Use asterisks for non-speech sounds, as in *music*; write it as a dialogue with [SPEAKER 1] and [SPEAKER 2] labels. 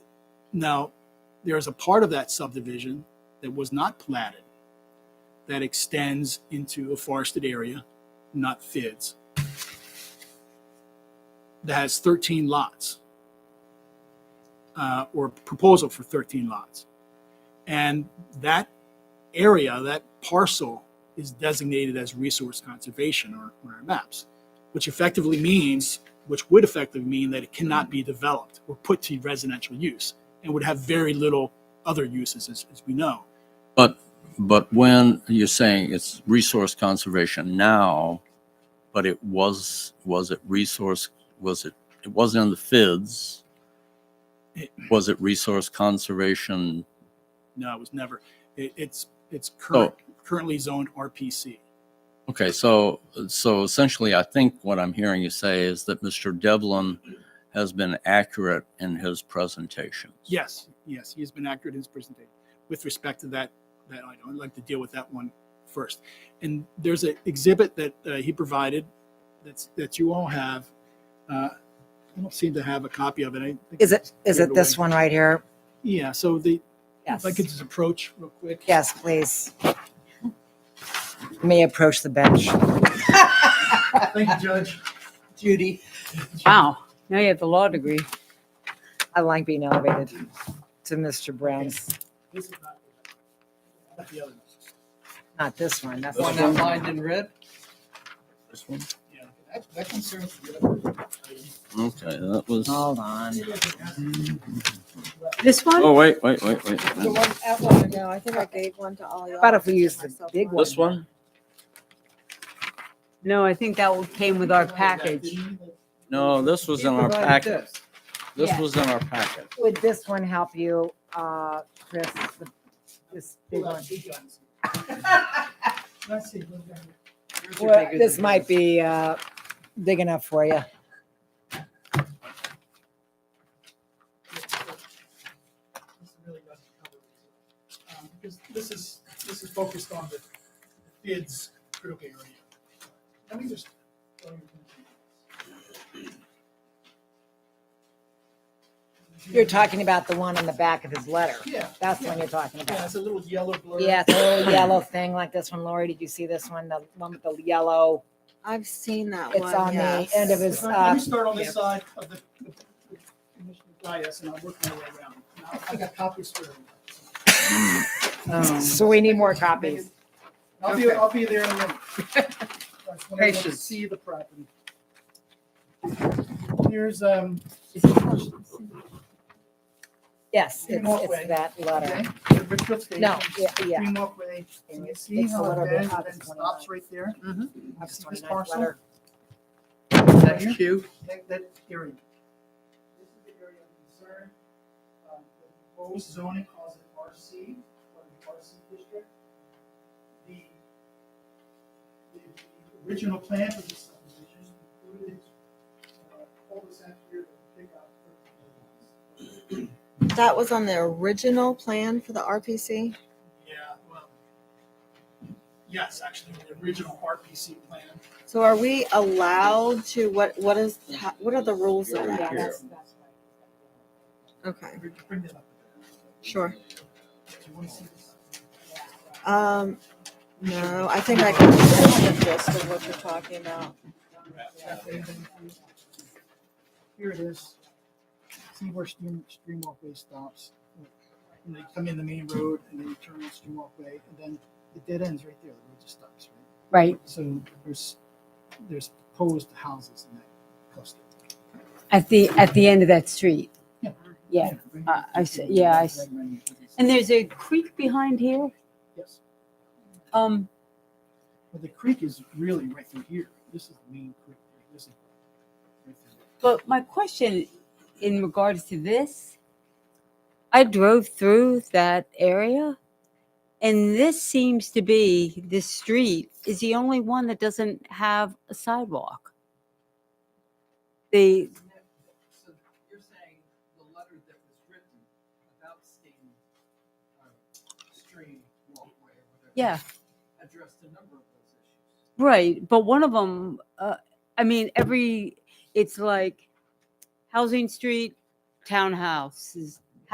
[SPEAKER 1] Now, there is a part of that subdivision that was not platted that extends into a forested area, not FIDS, that has 13 lots, uh, or proposal for 13 lots. And that area, that parcel, is designated as resource conservation or on our maps, which effectively means, which would effectively mean that it cannot be developed or put to residential use and would have very little other uses, as, as we know.
[SPEAKER 2] But, but when you're saying it's resource conservation now, but it was, was it resource, was it, it wasn't in the FIDS?
[SPEAKER 1] It-
[SPEAKER 2] Was it resource conservation?
[SPEAKER 1] No, it was never. It, it's it's current, currently zoned RPC.
[SPEAKER 2] Okay, so, so essentially, I think what I'm hearing you say is that Mr. Devlin has been accurate in his presentations.
[SPEAKER 1] Yes, yes, he has been accurate in his presentation with respect to that that item. I'd like to deal with that one first. And there's an exhibit that uh, he provided that's that you all have. Uh, I don't seem to have a copy of it. I think
[SPEAKER 3] Is it,
[SPEAKER 1] it's
[SPEAKER 3] is it
[SPEAKER 1] cleared
[SPEAKER 3] this
[SPEAKER 1] away.
[SPEAKER 3] one right here?
[SPEAKER 1] Yeah. So the
[SPEAKER 3] Yes.
[SPEAKER 1] if I could just approach real quick.
[SPEAKER 3] Yes, please. You May approach the bench.
[SPEAKER 1] Thank you, Judge.
[SPEAKER 3] Judy.
[SPEAKER 4] Wow, now you have the law degree.
[SPEAKER 3] I like being elevated to Mr. Brown's,
[SPEAKER 1] This is not, not the other. one.
[SPEAKER 3] not this one. That's
[SPEAKER 5] The one
[SPEAKER 3] not
[SPEAKER 5] that lined in red?
[SPEAKER 2] This one?
[SPEAKER 1] Yeah. That, that concerns the other. item.
[SPEAKER 2] Okay, that was,
[SPEAKER 3] Hold on.
[SPEAKER 4] This one?
[SPEAKER 2] oh, wait, wait, wait, wait.
[SPEAKER 6] The one at one, no, I think I gave one to all y'all.
[SPEAKER 3] How about if we use the big one?
[SPEAKER 2] This one?
[SPEAKER 4] No, I think that one came with our package.
[SPEAKER 2] No, this was
[SPEAKER 5] He
[SPEAKER 2] in our
[SPEAKER 5] provided
[SPEAKER 2] packet.
[SPEAKER 5] this.
[SPEAKER 2] This
[SPEAKER 4] Yeah.
[SPEAKER 2] was in our packet.
[SPEAKER 3] Would this one help you, uh, Chris? The- This big one?
[SPEAKER 1] *laughs* Let's see. what's that?
[SPEAKER 5] Yours are
[SPEAKER 3] Well,
[SPEAKER 5] bigger
[SPEAKER 3] this
[SPEAKER 5] than
[SPEAKER 3] might
[SPEAKER 5] his.
[SPEAKER 3] be, uh, big enough for you.
[SPEAKER 1] This really doesn't cover it. Um, Because this is, this is focused on the bids critical area. Let me just.
[SPEAKER 3] You're talking about the one on the back of his letter.
[SPEAKER 1] Yeah,
[SPEAKER 3] That's the one you're talking about.
[SPEAKER 1] yeah, it's a little yellow blur.
[SPEAKER 3] Yeah, it's
[SPEAKER 1] *coughs*
[SPEAKER 3] a little yellow thing like this one. Lori, did you see this one? The one with the yellow?
[SPEAKER 6] I've seen that
[SPEAKER 3] It's
[SPEAKER 6] one,
[SPEAKER 3] on the
[SPEAKER 6] yes.
[SPEAKER 3] end of his,
[SPEAKER 1] Let
[SPEAKER 3] uh,
[SPEAKER 1] me start on this
[SPEAKER 3] yeah.
[SPEAKER 1] side of the, the Commissioner Dias, and I'll work my way around. Now, I've got copies for everyone.
[SPEAKER 3] so we need more copies.
[SPEAKER 1] I'll be, I'll be there in a minute. That's when I
[SPEAKER 5] Patience.
[SPEAKER 1] See the property. Here's, um,
[SPEAKER 3] Yes, it's,
[SPEAKER 1] More way.
[SPEAKER 3] it's that
[SPEAKER 1] okay,
[SPEAKER 3] letter.
[SPEAKER 1] the Richfield Station.
[SPEAKER 3] No, yeah, yeah.
[SPEAKER 1] Green Walkway, and you see
[SPEAKER 3] It's a
[SPEAKER 1] how
[SPEAKER 3] little
[SPEAKER 1] it
[SPEAKER 3] bit
[SPEAKER 1] bends and
[SPEAKER 3] up,
[SPEAKER 1] then
[SPEAKER 3] it's one of
[SPEAKER 1] stops
[SPEAKER 3] those.
[SPEAKER 1] right there?
[SPEAKER 3] Mm-hmm. That's
[SPEAKER 1] See
[SPEAKER 3] one
[SPEAKER 1] this
[SPEAKER 3] nice
[SPEAKER 1] parcel?
[SPEAKER 3] letter.
[SPEAKER 1] Right here?
[SPEAKER 5] That's cute.
[SPEAKER 1] That, that area. This is the area of concern. Um, the proposed zoning calls it RC, or the RC district. The, the the original plan for this subdivision included uh, cul-de-sac here that would pick up thirteen lots.
[SPEAKER 6] That was on the original plan for the RPC.
[SPEAKER 1] Yeah, well, yes, actually, the original RPC plan.
[SPEAKER 6] So are we allowed to, what, what is, how- what are the rules of
[SPEAKER 3] Yeah,
[SPEAKER 6] that?
[SPEAKER 3] that's- that's
[SPEAKER 6] Okay,
[SPEAKER 1] Bring- Bring that up.
[SPEAKER 6] sure.
[SPEAKER 1] Do you want to see this?
[SPEAKER 6] Um, no, I think I can get the gist of what you're talking about.
[SPEAKER 1] Here it is. See where Stream, Stream Walkway stops. And they come in the main road and then you turn on Stream Walkway and then it dead ends right there. The road just stops, right?
[SPEAKER 4] Right,
[SPEAKER 1] So there's, there's proposed houses in that cluster.
[SPEAKER 4] at the, at the end of that street.
[SPEAKER 1] Yeah.
[SPEAKER 4] Yeah, I- I see- yeah, I see. and there's a creek behind here.
[SPEAKER 1] Yes.
[SPEAKER 4] Um,
[SPEAKER 1] But the creek is really right through here. This is the main creek. This is right through
[SPEAKER 4] but my question in regards to this, I drove through that area and this seems to be, this street is the only one that doesn't have a sidewalk. The,
[SPEAKER 5] So you're saying the letter that was written about Stain, uh, stream walkway or whatever.
[SPEAKER 4] yeah.
[SPEAKER 5] Addressed a number of those issues.
[SPEAKER 4] Right, but one of them, uh, I mean, every it's like housing street, townhouses,